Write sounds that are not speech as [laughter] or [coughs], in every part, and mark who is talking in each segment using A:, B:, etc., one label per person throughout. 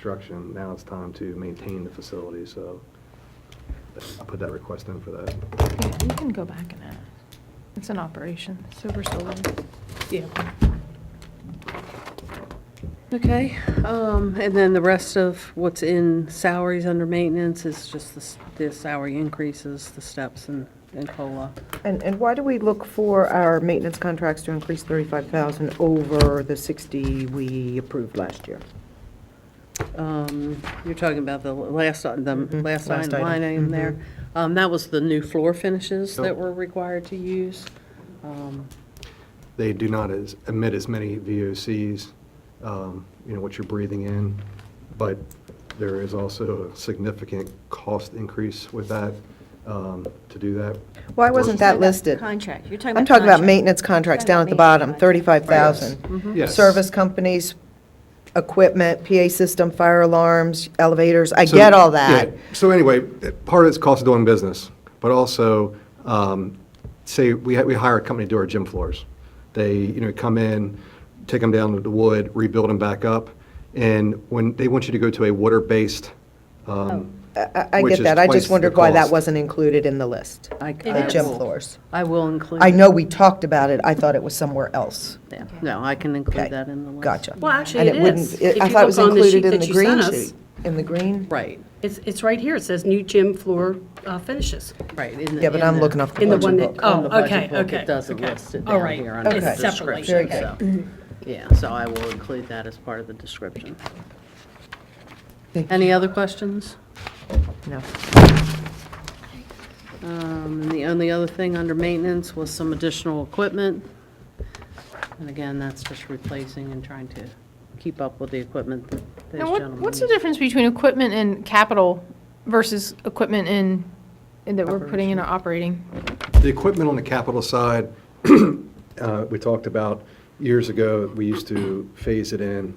A: construction, now it's time to maintain the facility, so I put that request in for that.
B: Yeah, you can go back and ask. It's an operation, silver solar.
C: Yeah. Okay, um, and then the rest of what's in salaries under maintenance is just the, s- the salary increases, the steps and, and COLA.
D: And, and why do we look for our maintenance contracts to increase 35,000 over the 60 we approved last year?
C: Um, you're talking about the last, uh, the last
D: Mm-hmm. last
C: line
D: item. Mm-hmm.
C: line item there. Um, that was the new floor finishes that we're required to use. Um,
A: They do not as- emit as many VOCs, um, you know, what you're breathing in, but there is also a significant cost increase with that, um, to do that.
D: Why wasn't that listed?
E: Contract, you're talking about.
D: I'm talking about
E: contract.
D: maintenance contracts down at the
E: Talking about
D: bottom,
E: maintenance.
D: 35,000.
A: Yes.
D: Service companies, equipment, PA system, fire alarms, elevators, I
A: So-
D: get all that.
A: yeah. So anyway, part of it's cost of doing business, but also, um, say, we ha- we hire a company to do our gym floors. They, you know, come in, take them down to the wood, rebuild them back up, and when, they want you to go to a water-based. um,
D: I- I, I
A: which
D: get
A: is
D: that, I
A: twice
D: just
A: the
D: wondered why that
A: cost.
D: wasn't included in the list,
C: I-
D: the
C: I
D: gym
C: will-
D: floors.
C: I will include.
D: I know we talked about it, I thought it was somewhere else.
C: Yeah, No, I can
D: Okay,
C: include that in the list.
D: Gotcha.
F: Well, actually,
D: And
F: it
D: wouldn't-
F: is.
D: it-
F: If
D: I
F: you
D: thought it was
F: look on the
D: included
F: sheet
D: in
F: that
D: the
F: you
D: green
F: sent us.
D: sheet, in the green?
C: Right,
F: It's, it's right here, it says new gym floor uh, finishes.
C: right. in the-
D: Yeah, but
C: in
D: I'm
C: the-
D: looking off the
F: In the
D: budget
F: one that,
D: book.
C: on the
F: oh,
C: budget
F: okay,
C: book,
F: okay.
C: it doesn't
F: okay.
C: list it
F: All
C: down
F: right.
C: here under the
D: Okay.
F: It's separately,
C: description,
F: okay. Mm-hmm.
C: so. Yeah, so I will include that as part of the description.
D: Thank
C: Any other questions?
D: No.
C: Um, And the only other thing under maintenance was some additional equipment. And again, that's just replacing and trying to keep up with the equipment that those
B: Now, what,
C: gentlemen.
B: what's the
C: need.
B: difference between equipment and capital versus equipment in, in that we're putting in our operating?
A: The equipment on the capital side, [clears throat] uh, we talked about years ago, we used to phase it in,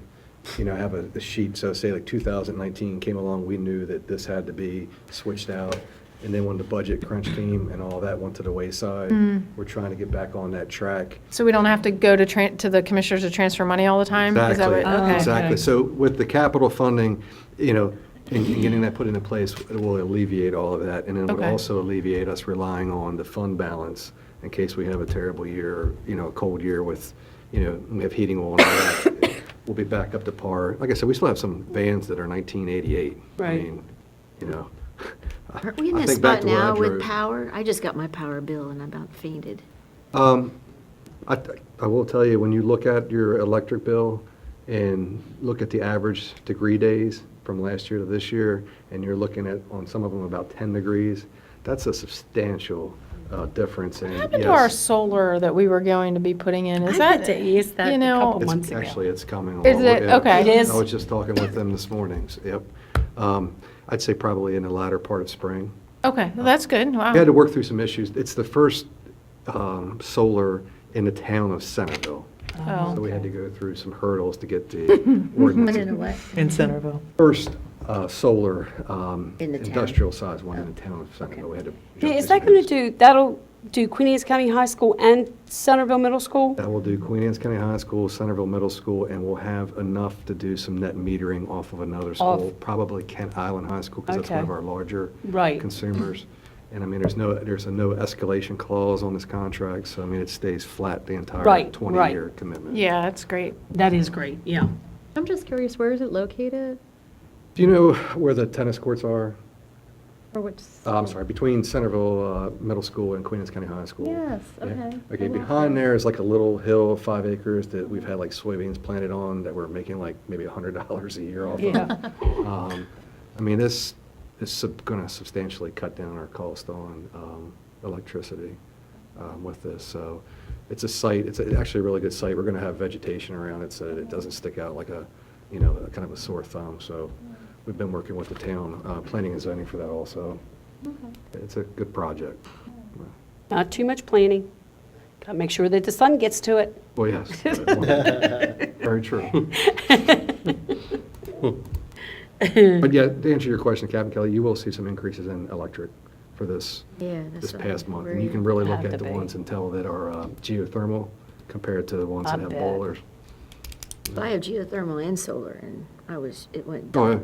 A: you know, have a a sheet, so say like 2019 came along, we knew that this had to be switched out, and then when the budget crunch came and all that went to the wayside, we're trying to get back on that track.
B: So we don't have to go to tran, to the commissioners to transfer money all the time? Is that
A: Exactly,
B: what- okay.
A: exactly. So with the capital funding, you know, and and getting that put into place, it will alleviate all of that. And it would
B: Okay.
A: also alleviate us relying on the fund balance in case we have a terrible year, you know, a cold year with, you know, we have heating oil and all that. [coughs] We'll be back up to par. Like I said, we still have some vans that are 1988. I
C: Right.
A: mean, you know.
E: Aren't we in
A: I
E: that
A: think back
E: spot
A: to when I
E: now with
A: drove.
E: power? I just got my power bill and I about fainted.
A: I, I will tell you, when you look at your electric bill and look at the average degree days from last year to this year, and you're looking at, on some of them, about 10 degrees, that's a substantial uh, difference in, yes.
B: What happened to our solar that we were going to be putting in? Is
F: I
B: that?
F: meant to ease that
B: you
F: a
B: know-
F: couple
A: It's-
F: months ago.
A: Actually, it's coming along.
B: Is it?
A: yeah.
B: Okay. It
F: is?
A: I was just talking with them this morning, so, yep. Um, I'd say probably in the latter part of spring.
B: Okay, well, that's good, wow.
A: We had to work through some issues. It's the first um, solar in the town of Centerville. So
B: Oh,
A: we had to go through some hurdles to get the [laughs] ordinance
E: in a way.
D: In Centerville.
A: first uh, solar um,
E: In the town.
A: industrial size one in the town of Centerville. We had to
F: Oh, Yeah,
A: jump through
F: Is that
A: some
F: going to
A: hoops.
F: do, that'll do Queen Anne's County High School and Centerville Middle School?
A: That will do Queen Anne's County High School, Centerville Middle School, and we'll have enough to do some net metering off of another school, probably Kent Island High School, because that's one
F: Okay.
A: of our larger
F: Right.
A: consumers. And I mean, there's no, there's a no escalation clause on this contract, so I mean, it stays flat the entire
F: Right, right.
A: 20-year commitment.
B: Yeah, that's great.
F: That is great, yeah.
E: I'm just curious, where is it located?
A: Do you know where the tennis courts are?
E: Or which?
A: Uh, I'm sorry, between Centerville uh, Middle School and Queen Anne's County High School.
E: Yes,
A: Yeah.
E: okay.
A: Okay, behind there is like a little hill, five acres, that we've had like soybeans planted on that we're making like maybe a hundred dollars a year off of. Um, I mean, this is sub- gonna substantially cut down our cost on um, electricity um, with this, so it's a site, it's a- actually a really good site. We're gonna have vegetation around it so that it doesn't stick out like a, you know, a kind of a sore thumb, so
E: Mm.
A: we've been working with the town, uh, planning and zoning for that also. It's a good project.
F: Not too much planning. Got to make sure that the sun gets to it.
A: Well, yes. Very true. But yeah, to answer your question, Captain Kelly, you will see some increases in electric for this,
E: Yeah, that's.
A: this
E: what I'm
A: past month. And
E: worried.
A: you can really look
F: Have
A: at
F: to
A: the
F: be.
A: ones and tell that are uh, geothermal compared to the ones that
F: I
A: have
F: bet.
A: boilers.
E: Well, I have geothermal and solar and I was, it went
A: Oh, yeah.
E: dark.